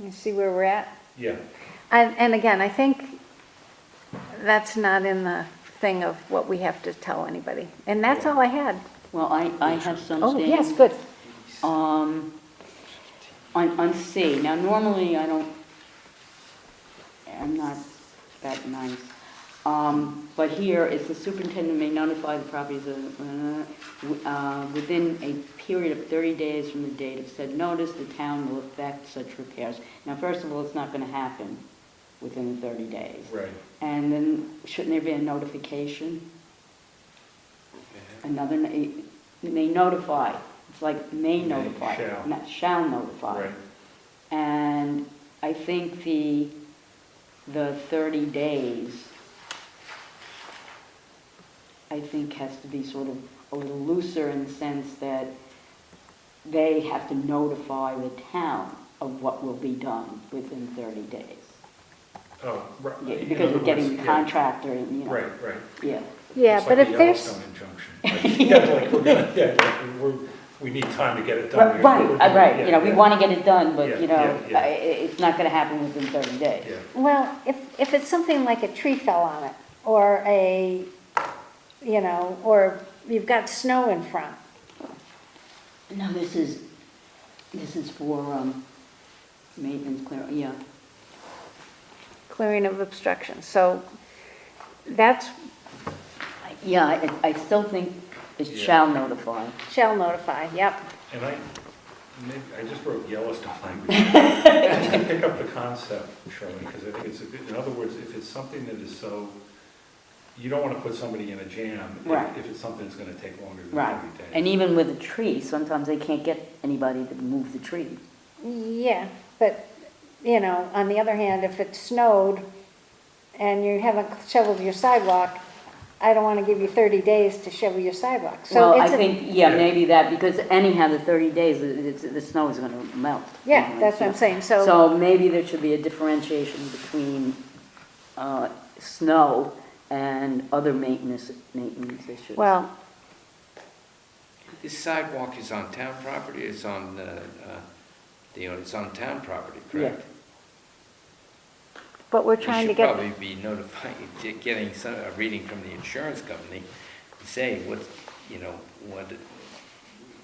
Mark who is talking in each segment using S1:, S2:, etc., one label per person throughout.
S1: You see where we're at?
S2: Yeah,
S1: And, and again, I think that's not in the thing of what we have to tell anybody. And that's all I had.
S3: Well, I, I have some
S1: Oh,
S3: standing.
S1: yes, good.
S3: Um, on, on C, now normally I don't, I'm not that nice. Um, but here is the superintendent may notify the properties of, uh, w- uh, within a period of thirty days from the date of said notice, the town will effect such repairs. Now, first of all, it's not gonna happen within the thirty days.
S2: right.
S3: And then shouldn't there be a notification? Another, na- may notify, it's like may
S2: May,
S3: notify,
S2: shall.
S3: not shall notify.
S2: Right.
S3: And I think the, the 30 days, I think has to be sort of a little looser in the sense that they have to notify the town of what will be done within 30 days.
S2: Oh, right.
S3: Yeah,
S2: In
S3: Because
S2: other
S3: you're getting
S2: words,
S3: the
S2: yeah.
S3: contractor and, you know.
S2: Right, right.
S3: Yeah.
S1: Yeah,
S2: It's
S1: but
S2: like
S1: if
S2: the
S1: there's,
S2: Yellowstone injunction. Like, Yeah, like, we're gonna, yeah, like, we're, we need time to get it done.
S3: Right,
S2: We're-
S3: right,
S2: we're
S3: uh,
S2: gonna-
S3: right,
S2: yeah,
S3: you know, we
S2: yeah,
S3: want to get it done,
S2: Yeah,
S3: but, you know,
S2: yeah, yeah.
S3: I- i- it's not going to happen within 30
S2: Yeah,
S3: days.
S1: well, if, if it's something like a tree fell on it, or a, you know, or you've got snow in front.
S3: No, this is, this is for um, maintenance clear, yeah.
S1: clearing of obstruction. So that's,
S3: I- Yeah, I- I still think it
S2: Yeah.
S3: shall notify.
S1: shall notify, yep.
S2: and I, maybe, I just wrote Yellowstone language. Just to pick up the concept, Shirley, because I think it's, a bit- in other words, if it's something that is so, you don't want to put somebody in a jam. if-
S3: Right.
S2: If it's something that's gonna take longer than
S3: Right.
S2: thirty days.
S3: And even with a tree, sometimes they can't get anybody to move the tree.
S1: Yeah, but, you know, on the other hand, if it snowed and you haven't shoveled your sidewalk, I don't want to give you 30 days to shovel your sidewalk. So
S3: Well, I
S1: it's, a-
S3: think, yeah,
S2: Yeah.
S3: maybe that, because anyhow, the 30 days, it- it's- the snow is going to melt.
S1: yeah, that's what I'm saying. So,
S3: So maybe there should be a differentiation between uh, snow and other maintenance, maintenance issues.
S1: well,
S4: This sidewalk is on town property, it's on, uh, uh, you know, it's on town property, correct?
S1: but we're
S4: We
S1: trying to
S4: should
S1: get,
S4: probably be notifying, get- getting some, a reading from the insurance company, say what, you know, what,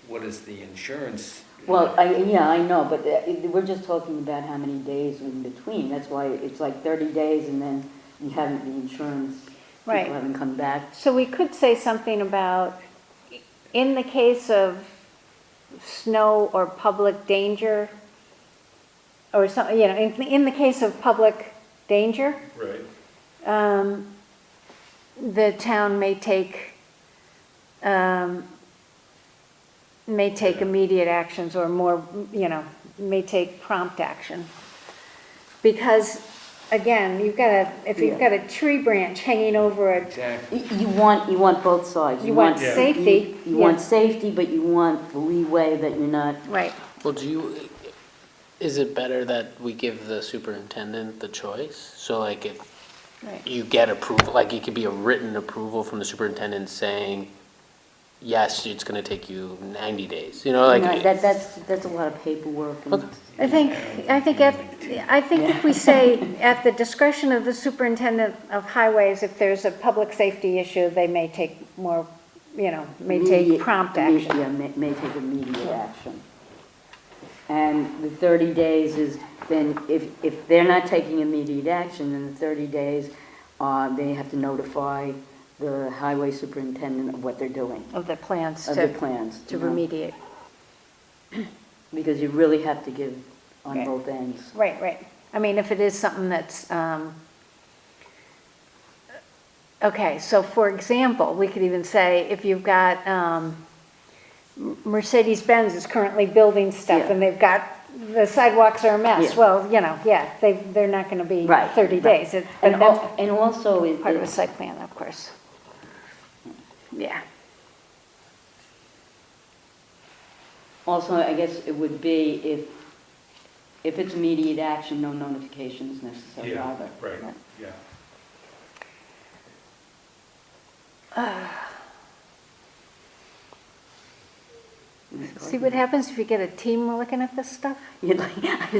S4: what is the insurance?
S3: Well, I, yeah, I know, but uh, it- we're just talking about how many days in between. That's why it's like 30 days and then you haven't, the insurance,
S1: Right.
S3: people haven't come back.
S1: so we could say something about, in the case of snow or public danger, or some, you know, in, in the case of public danger,
S2: Right,
S1: um, the town may take, um, may take immediate actions or more, you know, may take prompt action. Because, again, you've got a, if you've got a tree branch hanging over a,
S4: Exactly.
S3: Y- You want, you want both sides.
S1: You want
S2: Yeah.
S1: safety,
S3: You you want
S1: yeah.
S3: safety, but you want the leeway that you're not,
S1: right,
S5: Well, do you, is it better that we give the superintendent the choice? So like if
S1: right,
S5: you get approval, like it could be a written approval from the superintendent saying, yes, it's gonna take you ninety days, you know,
S3: you
S5: like.
S3: know, that, that's, that's a lot of paperwork and.
S5: Okay.
S1: I think, I think at, I think if we say, at the discretion of the superintendent of highways, if there's a public safety issue, they may take more, you know, may take
S3: Immediate-
S1: prompt
S3: imme-
S1: action.
S3: Yeah, may, may take immediate action. And the thirty days is, then if, if they're not taking immediate action, then the thirty days, uh, they have to notify the highway superintendent of what they're doing,
S1: of the plans
S3: of their
S1: to,
S3: plans.
S1: to
S3: you know,
S1: remediate.
S3: Because you really have to give on
S1: Right.
S3: both ends.
S1: Right, right. I mean, if it is something that's, um, okay, so for example, we could even say, if you've got, um, Mercedes-Benz is currently building stuff,
S3: Yeah.
S1: and they've got, the sidewalks are a mess,
S3: Yeah.
S1: well, you know, yeah, they, they're not gonna be
S3: Right.
S1: thirty
S3: right.
S1: days. It- But
S3: And al-
S1: that's
S3: and also it.
S1: part of a
S3: it-
S1: site plan, of course. Yeah,
S3: Also, I guess it would be if, if it's immediate action, no notification is necessary
S2: yeah,
S3: either.
S2: right, yeah.
S1: see what happens if you get a team looking at this stuff?
S3: You'd like-